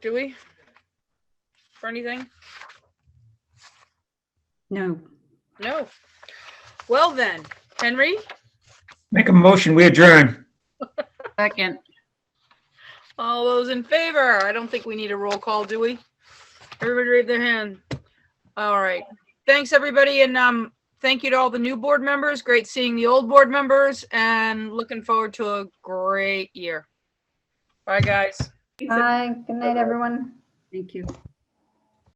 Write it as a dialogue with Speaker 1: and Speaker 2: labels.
Speaker 1: Do we? For anything?
Speaker 2: No,
Speaker 1: No. Well then, Henry,
Speaker 3: Make a motion, we adjourn.
Speaker 2: second,
Speaker 1: all those in favor? I don't think we need a roll call, do we? Everybody raise their hand. All right. Thanks, everybody, and um, thank you to all the new board members. Great seeing the old board members and looking forward to a great year. Bye, guys.
Speaker 4: Bye. Good night, everyone.
Speaker 2: thank you.